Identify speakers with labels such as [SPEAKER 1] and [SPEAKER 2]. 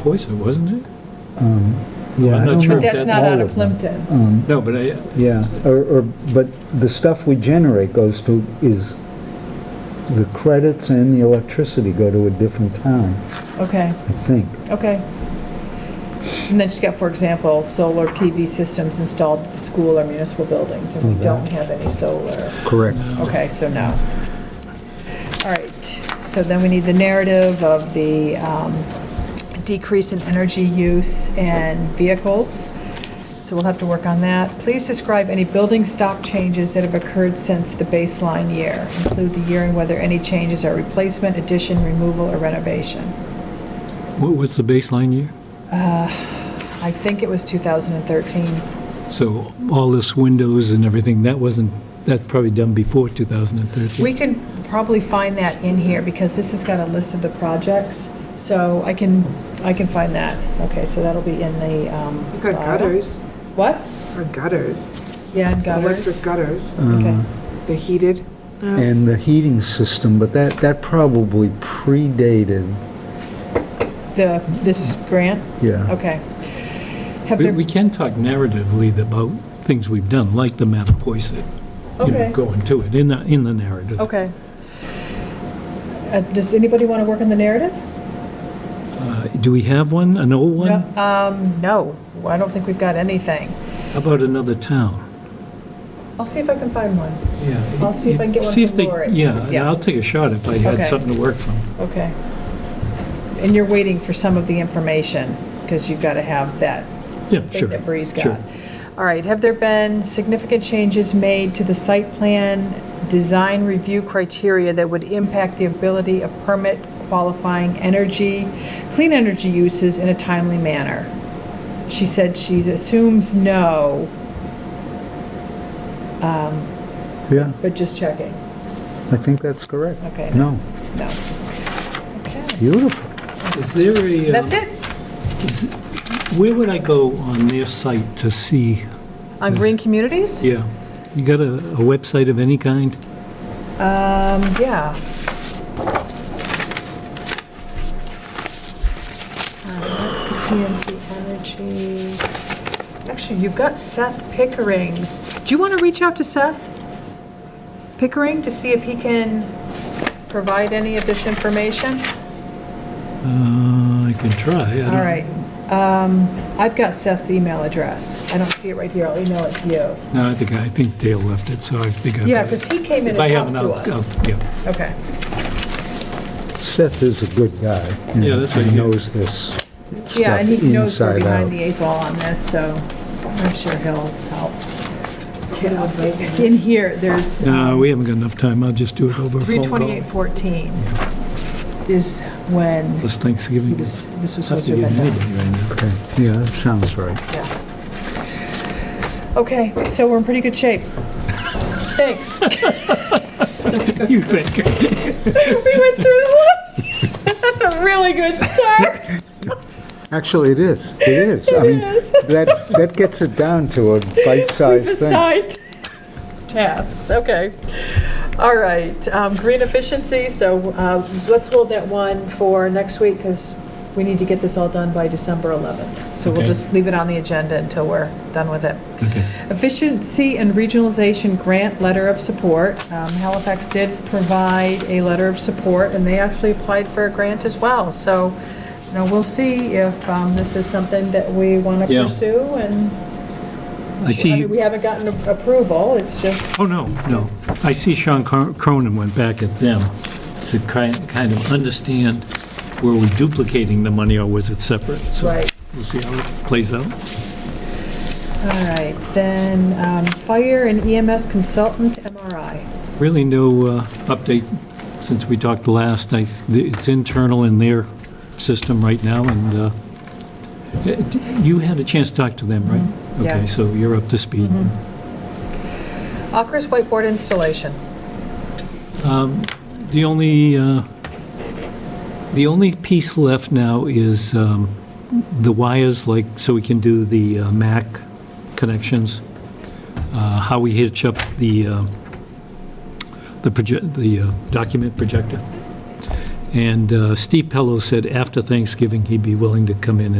[SPEAKER 1] Poison, wasn't it?
[SPEAKER 2] Um, yeah,
[SPEAKER 1] I'm
[SPEAKER 2] I
[SPEAKER 1] not
[SPEAKER 2] don't
[SPEAKER 1] sure
[SPEAKER 2] know
[SPEAKER 3] But
[SPEAKER 1] if
[SPEAKER 3] that's
[SPEAKER 2] all
[SPEAKER 3] not out of
[SPEAKER 2] of them.
[SPEAKER 3] Plimpton.
[SPEAKER 2] Um,
[SPEAKER 1] No, but I,
[SPEAKER 2] Yeah, or, or, but the stuff we generate goes to, is, the credits and the electricity go to a different town,
[SPEAKER 3] Okay,
[SPEAKER 2] I think.
[SPEAKER 3] okay. And then she's got, for example, solar PV systems installed at the school or municipal buildings, and we don't have any solar.
[SPEAKER 4] Correct.
[SPEAKER 3] Okay, so no. All right, so then we need the narrative of the um, decrease in energy use and vehicles. So we'll have to work on that. Please describe any building stock changes that have occurred since the baseline year. Include the year and whether any changes are replacement, addition, removal, or renovation.
[SPEAKER 1] what was the baseline year?
[SPEAKER 3] I think it was 2013.
[SPEAKER 1] So all this windows and everything, that wasn't, that's probably done before 2013.
[SPEAKER 3] We can probably find that in here, because this has got a list of the projects, so I can, I can find that. Okay, so that'll be in the, um...
[SPEAKER 5] We've got
[SPEAKER 3] file.
[SPEAKER 5] gutters,
[SPEAKER 3] What?
[SPEAKER 5] or gutters,
[SPEAKER 3] Yeah, and
[SPEAKER 5] electric
[SPEAKER 3] gutters.
[SPEAKER 5] gutters,
[SPEAKER 3] Okay.
[SPEAKER 5] they're heated. now.
[SPEAKER 2] And the heating system, but that, that probably predated,
[SPEAKER 3] The, this grant?
[SPEAKER 2] yeah.
[SPEAKER 3] Okay. Have
[SPEAKER 1] We
[SPEAKER 3] there,
[SPEAKER 1] we can talk narratively about things we've done, like the Mattapoisett, you know,
[SPEAKER 3] Okay.
[SPEAKER 1] going to it, in the, in the narrative.
[SPEAKER 3] okay. Uh, Does anybody want to work on the narrative?
[SPEAKER 1] Uh, Do we have one, an old one?
[SPEAKER 3] No, Um, no, I don't think we've got anything.
[SPEAKER 1] How about another town?
[SPEAKER 3] I'll see if I can find one.
[SPEAKER 1] Yeah.
[SPEAKER 3] I'll see if I can get one
[SPEAKER 1] See if
[SPEAKER 3] from
[SPEAKER 1] they-
[SPEAKER 3] Lori.
[SPEAKER 1] Yeah,
[SPEAKER 3] Yeah.
[SPEAKER 1] I'll take a shot if I had
[SPEAKER 3] Okay.
[SPEAKER 1] something to work from.
[SPEAKER 3] Okay. And you're waiting for some of the information, because you've got to have that
[SPEAKER 1] Yeah, sure.
[SPEAKER 3] thing that Bree's
[SPEAKER 1] sure.
[SPEAKER 3] got. All right, have there been significant changes made to the site plan design review criteria that would impact the ability of permit qualifying energy, clean energy uses in a timely manner? She said she assumes no,
[SPEAKER 2] Yeah,
[SPEAKER 3] but just checking.
[SPEAKER 2] I think that's correct.
[SPEAKER 3] Okay.
[SPEAKER 2] No,
[SPEAKER 3] No. Okay,
[SPEAKER 2] beautiful.
[SPEAKER 1] Is there a... uh,
[SPEAKER 3] that's it.
[SPEAKER 1] is- Where would I go on their site to see,
[SPEAKER 3] On Green Communities?
[SPEAKER 1] yeah? You got a a website of any kind?
[SPEAKER 3] Um, yeah. Um, That's the TNT Energy. Actually, you've got Seth Pickering's. Do you want to reach out to Seth Pickering to see if he can provide any of this information?
[SPEAKER 1] Uh, I can try. I don't-
[SPEAKER 3] All right. Um, I've got Seth's email address. I don't see it right here. I'll email it to you.
[SPEAKER 1] No, I think, I think Dale left it, so I think I've...
[SPEAKER 3] Yeah, because he came in
[SPEAKER 1] If I
[SPEAKER 3] and
[SPEAKER 1] haven't, I'll-
[SPEAKER 3] talked to us.
[SPEAKER 1] I'll- yeah.
[SPEAKER 3] Okay.
[SPEAKER 2] Seth is a good guy.
[SPEAKER 1] Yeah, that's what
[SPEAKER 2] He
[SPEAKER 1] he is.
[SPEAKER 2] knows this
[SPEAKER 3] Yeah,
[SPEAKER 2] stuff
[SPEAKER 3] and he knows we're
[SPEAKER 2] inside
[SPEAKER 3] behind the
[SPEAKER 2] out.
[SPEAKER 3] eight ball on this, so I'm sure he'll help. In here, there's um,
[SPEAKER 1] No, we haven't got enough time. I'll just do it over a phone call.
[SPEAKER 3] 32814 is when
[SPEAKER 1] This
[SPEAKER 3] he
[SPEAKER 1] Thanksgiving.
[SPEAKER 3] was, this was
[SPEAKER 1] Tough
[SPEAKER 3] supposed
[SPEAKER 1] to
[SPEAKER 3] to
[SPEAKER 1] get
[SPEAKER 3] have been done.
[SPEAKER 1] anybody right now.
[SPEAKER 2] Okay, Yeah, that sounds right.
[SPEAKER 3] Yeah. Okay, so we're in pretty good shape. Thanks. We
[SPEAKER 1] You think?
[SPEAKER 3] went through the list. That's a really good start.
[SPEAKER 2] Actually, it is, it is. I mean,
[SPEAKER 3] is.
[SPEAKER 2] That, that gets it down to a bite-sized thing.
[SPEAKER 3] Beside tasks, okay. All right, um, green efficiency, so uh, let's hold that one for next week because we need to get this all done by December 11th. So we'll
[SPEAKER 1] Okay.
[SPEAKER 3] just leave it on the agenda until we're done with it.
[SPEAKER 1] Okay.
[SPEAKER 3] Efficiency and Regionalization Grant Letter of Support. Um, Halifax did provide a letter of support, and they actually applied for a grant as well. So, you know, we'll see if um, this is something that we want to
[SPEAKER 1] Yeah.
[SPEAKER 3] pursue, and,
[SPEAKER 1] I
[SPEAKER 3] I
[SPEAKER 1] see,
[SPEAKER 3] mean, we haven't gotten a- approval, it's just,
[SPEAKER 1] oh, no, no. I see Sean Cro- Cronin went back at them to ki- kind of understand, were we duplicating the money or was it separate? So
[SPEAKER 3] right.
[SPEAKER 1] We'll see how it plays out.
[SPEAKER 3] All right, then, um, fire and EMS consultant, MRI.
[SPEAKER 1] Really no uh, update since we talked last. I- It's internal in their system right now, and uh, eh, d- you had a chance to talk to them, right?
[SPEAKER 3] yeah.
[SPEAKER 1] Okay, so you're up to speed.
[SPEAKER 3] Akers whiteboard installation.
[SPEAKER 1] The only, uh, the only piece left now is um, the wires, like, so we can do the uh, MAC connections, uh, how we hitch up the, uh, the proje- the uh, document projector. And uh, Steve Pello said after Thanksgiving, he'd be willing to come in